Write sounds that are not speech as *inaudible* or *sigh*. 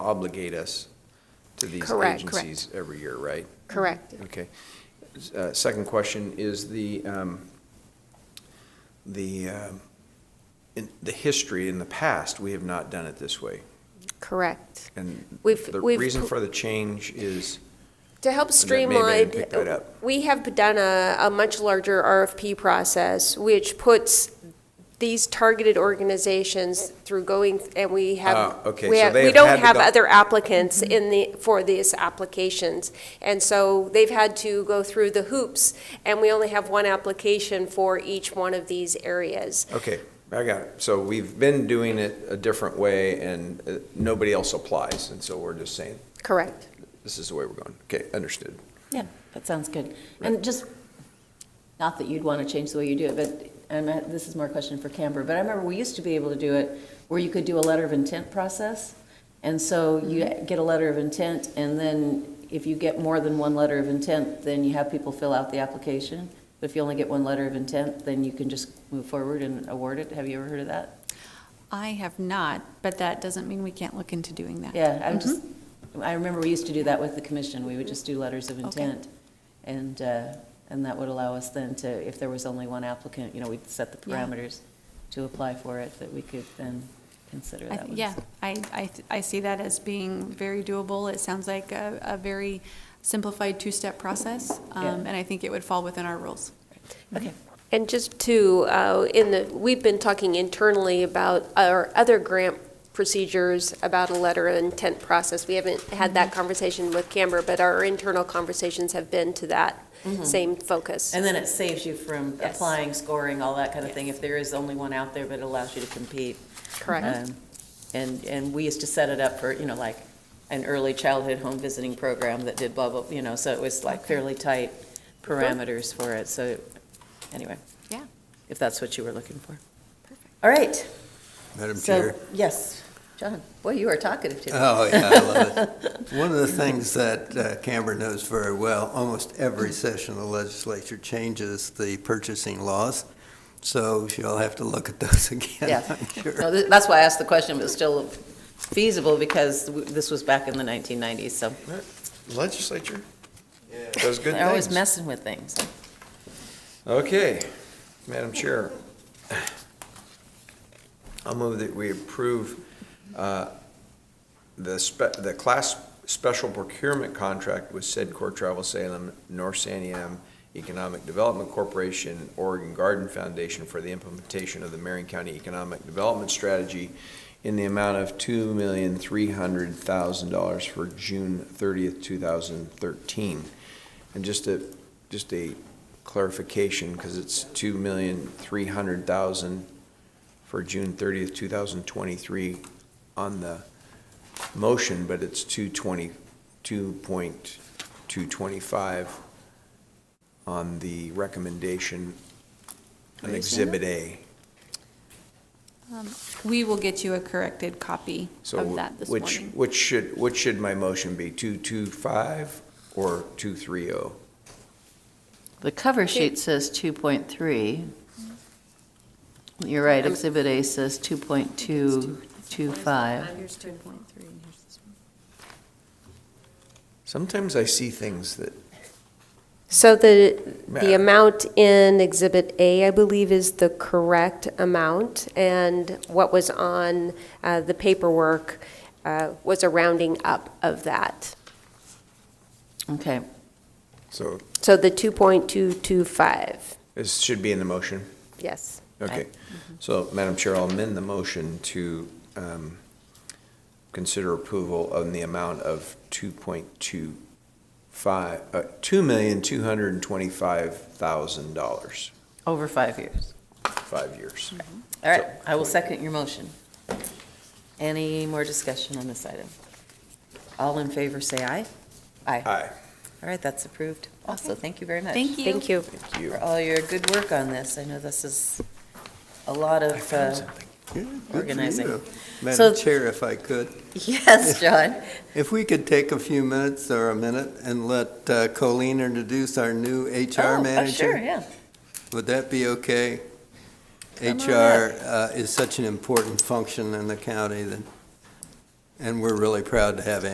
obligate us to these Correct, correct. agencies every year, right? Correct. Okay. Uh, Second question is the, um, the, um, in the history in the past, we have not done it this way. Correct. And We've- the we've reason pu- for the change is, To help that maybe I didn't streamline, pick that up. we have done a, a much larger RFP process, which puts these targeted organizations through going, and we have, Ah, okay, we so have, they we have had don't to have go- other applicants in the, for these applications. And so they've had to go through the hoops, and we only have one application for each one of these areas. okay, I got it. So we've been doing it a different way and uh, nobody else applies. And so we're just saying, Correct. this is the way we're going. Okay, understood. Yeah, that sounds good. And just, not that you'd want to change the way you do it, but, and I- this is more a question for Camber, but I remember we used to be able to do it where you could do a letter of intent process. And so you get a letter of intent, and then if you get more than one letter of intent, then you have people fill out the application. But if you only get one letter of intent, then you can just move forward and award it. Have you ever heard of that? I have not, but that doesn't mean we can't look into doing that. Yeah, I'm just, Mm-hmm. I remember we used to do that with the commission, we would just do letters of intent. And, uh, and that would allow us then to, if there was only one applicant, you know, we'd set the Yeah. parameters to apply for it, that we could then consider I that th- one. Yeah, I, I, th- I see that as being very doable. It sounds like a, a very simplified two-step process, Yeah. um, and I think it would fall within our rules. Okay, Mm-hmm. And just to, uh, in the, we've been talking internally about our other grant procedures, about a letter of intent process. We haven't had that conversation with Camber, but our internal conversations have been to that same focus. and then it saves you from Yes. applying, scoring, all that kind of thing, if there is only one out there, but it allows you to compete. Correct. Um, And, and we used to set it up for, you know, like an early childhood home visiting program that did blah, blah, you know, so it was like fairly tight parameters for it, so, anyway. Yeah. If that's what you were looking for. Perfect. All right, Madam so, Chair? yes, John, boy, you are talkative today. Oh, yeah, I love it. *laughs* One of the things that uh, Canberra knows very well, almost every session of the legislature changes the purchasing laws, so she'll have to look at those *laughs* again, Yeah. I'm *laughs* No, Uh, sure. th- That's why I asked the question, but it's still feasible, because w- this was back in the 1990s, so Legislature does good things. they're always messing with things. Okay, Madam Chair. I'll move that we approve uh, the spe, the class special procurement contract with said Core Travel Salem, North Saniam Economic Development Corporation, Oregon Garden Foundation for the implementation of the Marion County Economic Development Strategy in the amount of two million, three hundred thousand dollars for June thirtieth, two thousand thirteen. And just a, just a clarification, because it's two million, three hundred thousand for June thirtieth, two thousand twenty-three on the motion, but it's two twenty, two point two twenty-five on the recommendation on Are you seeing Exhibit A. We will get you a corrected copy of So that this which, morning. which should, which should my motion be, two two five or two three oh? The cover sheet says 2.3. You're right, Exhibit A says 2.225. Here's two. Sometimes I see things that, So the, the Matter. amount in Exhibit A, I believe, is the correct amount, and what was on uh, the paperwork uh, was a rounding up of that. Okay, so So the 2.225, this should be in the motion. yes. Okay, Mm-hmm. so Madam Chair, I'll amend the motion to um, consider approval on the amount of 2.25, uh, $2,225,000, Over five years. five years. All right, I will second your motion. Any more discussion on this item? All in favor, say aye. Aye. Aye, All right, that's approved. Also, Okay. thank you very much. Thank you. Thank you. thank you. For all your good work on this. I know this is a lot I of, found uh, something. Good for Organizing. you. So- Madam Chair, if I could, *laughs* yes, John. if we could take a few minutes or a minute and let uh, Colleen introduce our new Oh, HR oh, manager. Sure, yeah. Would that be okay? Come on HR uh, is such an important function in the county that And we're really proud to have